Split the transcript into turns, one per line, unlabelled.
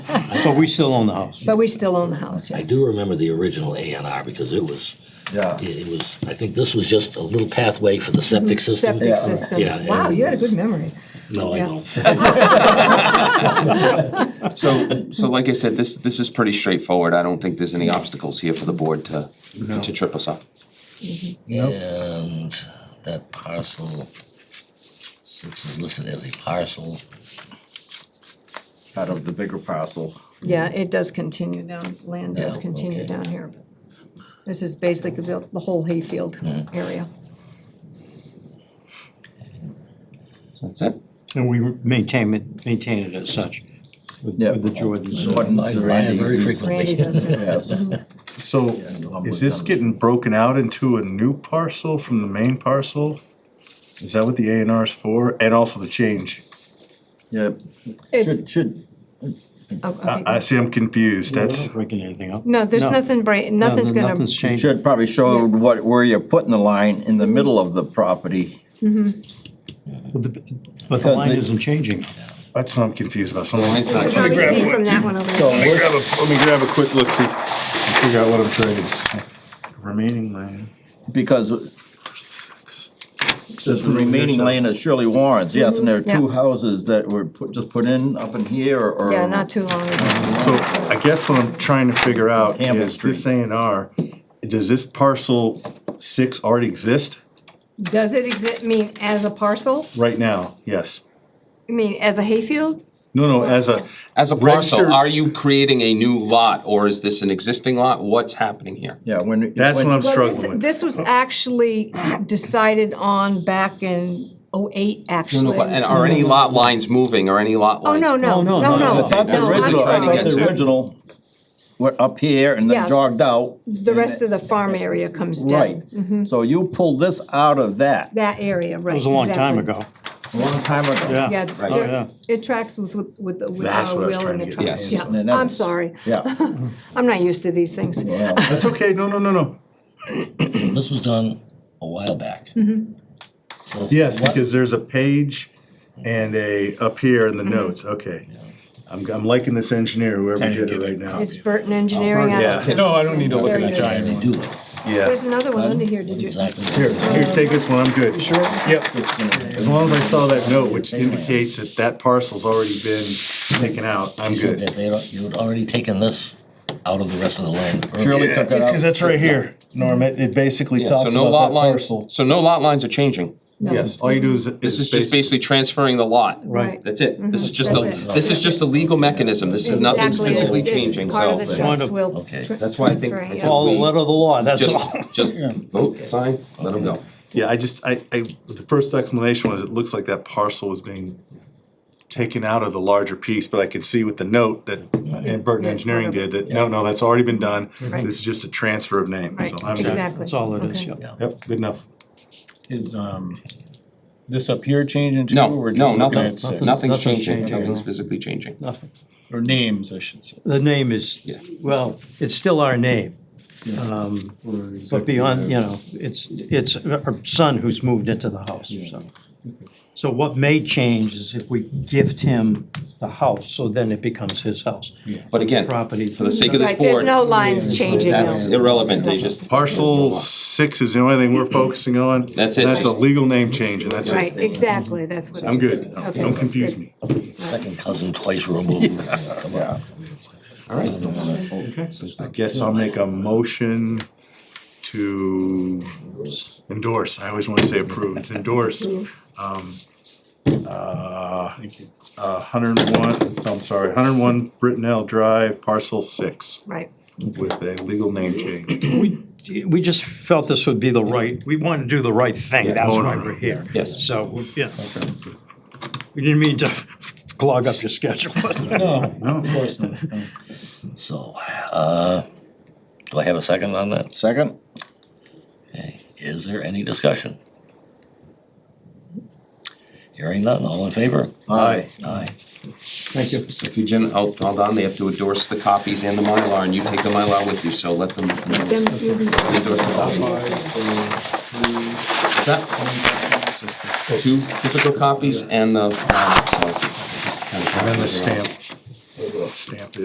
But we still own the house.
But we still own the house,
I
yes.
do remember the original A and R because it was,
Yeah.
it it was, I think this was just a little pathway for the septic system.
Mm-hmm. Septic
Yeah.
system.
Yeah,
Wow,
and-
you had a good memory.
No, I
Yeah.
don't.
So, so like I said, this, this is pretty straightforward. I don't think there's any obstacles here for the board to, to trip us up.
And that parcel, six is listed as a parcel.
Out of the bigger parcel.
Yeah, it does continue down, land does
Yeah,
continue
okay.
down here. This is basically the, the whole hayfield area.
That's it?
And we maintain it, maintain it as such with
Yeah.
with the Jordans.
What
I ran very
Randy
frequently.
does it.
Yes.
So is this getting broken out into a new parcel from the main parcel? Is that what the A and R is for? And also the change?
Yeah,
It's,
should, should,
oh,
I,
okay.
I see I'm confused. That's,
Not Breaking anything up.
no, there's nothing, bra-
No,
nothing's
no,
gonna,
Nothing's changed.
should probably show what, where you're putting the line in the middle of the property.
But the- but the line
they-
isn't changing.
that's what I'm confused about. So let
Mine's
me
not
you probably
changing.
see from that one over
So
there.
we're-
grab a, let me grab a quick look-see and figure out what I'm trying to say. Remaining land.
because this remaining land is Shirley Warren's, yes, and there are two
yeah.
houses that were put, just put in up in here or.
Yeah, not too long ago.
So I guess what I'm trying to figure out
Campbell
is this A and R, does this parcel six already exist
Does it exist, mean as a parcel?
right now? Yes.
I mean, as a hayfield?
No, no, as a,
As a
Registered-
parcel, are you creating a new lot or is this an existing lot? What's happening here?
Yeah, when.
that's
when-
what I'm
Well, this,
struggling with.
this was actually decided on back in oh-eight,
No,
actually.
no, but- And are any lot lines moving or any lot
Oh,
lines?
no, no,
No,
no,
no,
no.
no,
I thought
Oh, no,
the
I'm
original, I
sorry,
thought
I'm
the
sorry.
original went up here and
Yeah. Mm-hmm.
then jogged out.
The rest of the farm area comes
Right,
down,
so you pulled this out of that
that area, right.
It was a long time
exactly.
ago.
a long time ago.
Yeah.
Yeah,
Right.
Oh,
there-
yeah.
it tracks with, with, with the, with
That's
our
what I was
will
trying
and
to
the
get at.
trust,
Yes.
yeah,
And that
I'm
was-
sorry,
Yeah.
I'm not used to these things.
Well,
That's okay. No, no, no, no.
This was done a while back.
Mm-hmm.
So
Yes,
what-
because there's a page and a, up here in the
Mm-hmm.
notes, okay. I'm, I'm liking this engineer, whoever did it right now.
It's Burton Engineering out of
Yeah.
San
No, I don't need to
It's
look at
very
a
good.
giant
They do
one.
it.
Yeah.
There's another one under here, did you?
Exactly.
Here, here, take this one, I'm good. Sure? Yep, as long as I saw that note, which indicates that that parcel's already been taken out, I'm
You said
good.
that they, you had already taken this out of the rest of the land.
Shirley took it out.
that's right here, Norm, it, it basically
Yeah, so no lot lines, so no lot lines are changing.
Yes, all you do is.
This is just basically transferring the lot.
Right.
That's it. This is just a,
Mm-hmm. That's it.
this is just a legal mechanism. This is nothing's
Exactly, it's-
physically
it's
changing,
part of the
so.
Kind
trust
of-
will
Okay.
tr-
That's why I think-
transfer,
I
yeah.
think
Follow the letter of the law, that's
Just,
all.
just vote, sign, let them go.
Yeah, I just, I, I, the first explanation was it looks like that parcel was being taken out of the larger piece, but I can see with the note that and Burton Engineering did that, no, no, that's already been done.
Right.
This is just a transfer of name,
Right,
so I'm good.
exactly.
That's all it is,
Okay.
yeah.
Yep, good enough.
Is, um, this up here changing too?
No,
or we're
no,
just looking
nothing,
at six?
nothing's
nothing's
changing,
changing.
nothing's physically changing.
Or names, I should say.
The name is,
Yeah.
well, it's still our name. Um, But beyond, you know, it's, it's our son who's moved into the house, so. So what may change is if we gift him the house, so then it becomes his house.
But again,
Property.
for the sake of this
Right, there's
board,
no lines changing,
that's
no.
irrelevant, they just.
Parcel six is the only thing we're focusing on.
That's it.
And That's a legal name change, and that's
Right,
it.
exactly, that's what. it
I'm
is.
good.
Okay,
Don't confuse
good.
me.
Second cousin twice removed. Come on.
All right,
I guess I'll make a motion to endorse, I always wanna say approve, it's endorse. um, uh, uh, hundred and one, I'm sorry, hundred and one Brittenell Drive, parcel six,
Right,
with a legal name change.
We just felt this would be the right, we wanted to do the right thing, that's why we're here.
Oh, Yes.
So, yeah. We didn't mean to clog up your schedule.
No, no, of course not.
So, uh, do I have a second on that?
Second?
Okay, is there any discussion? Hearing none, all in favor?
Aye.
Aye.
Thank you. If you, Jen, hold hold on, they have to endorse the copies and the Mylar, and you take the Mylar with you, so let them endorse
Then you can-
endorse the copies. Is that two physical copies and the, uh, so just kind of-
And then the stamp, stamp it.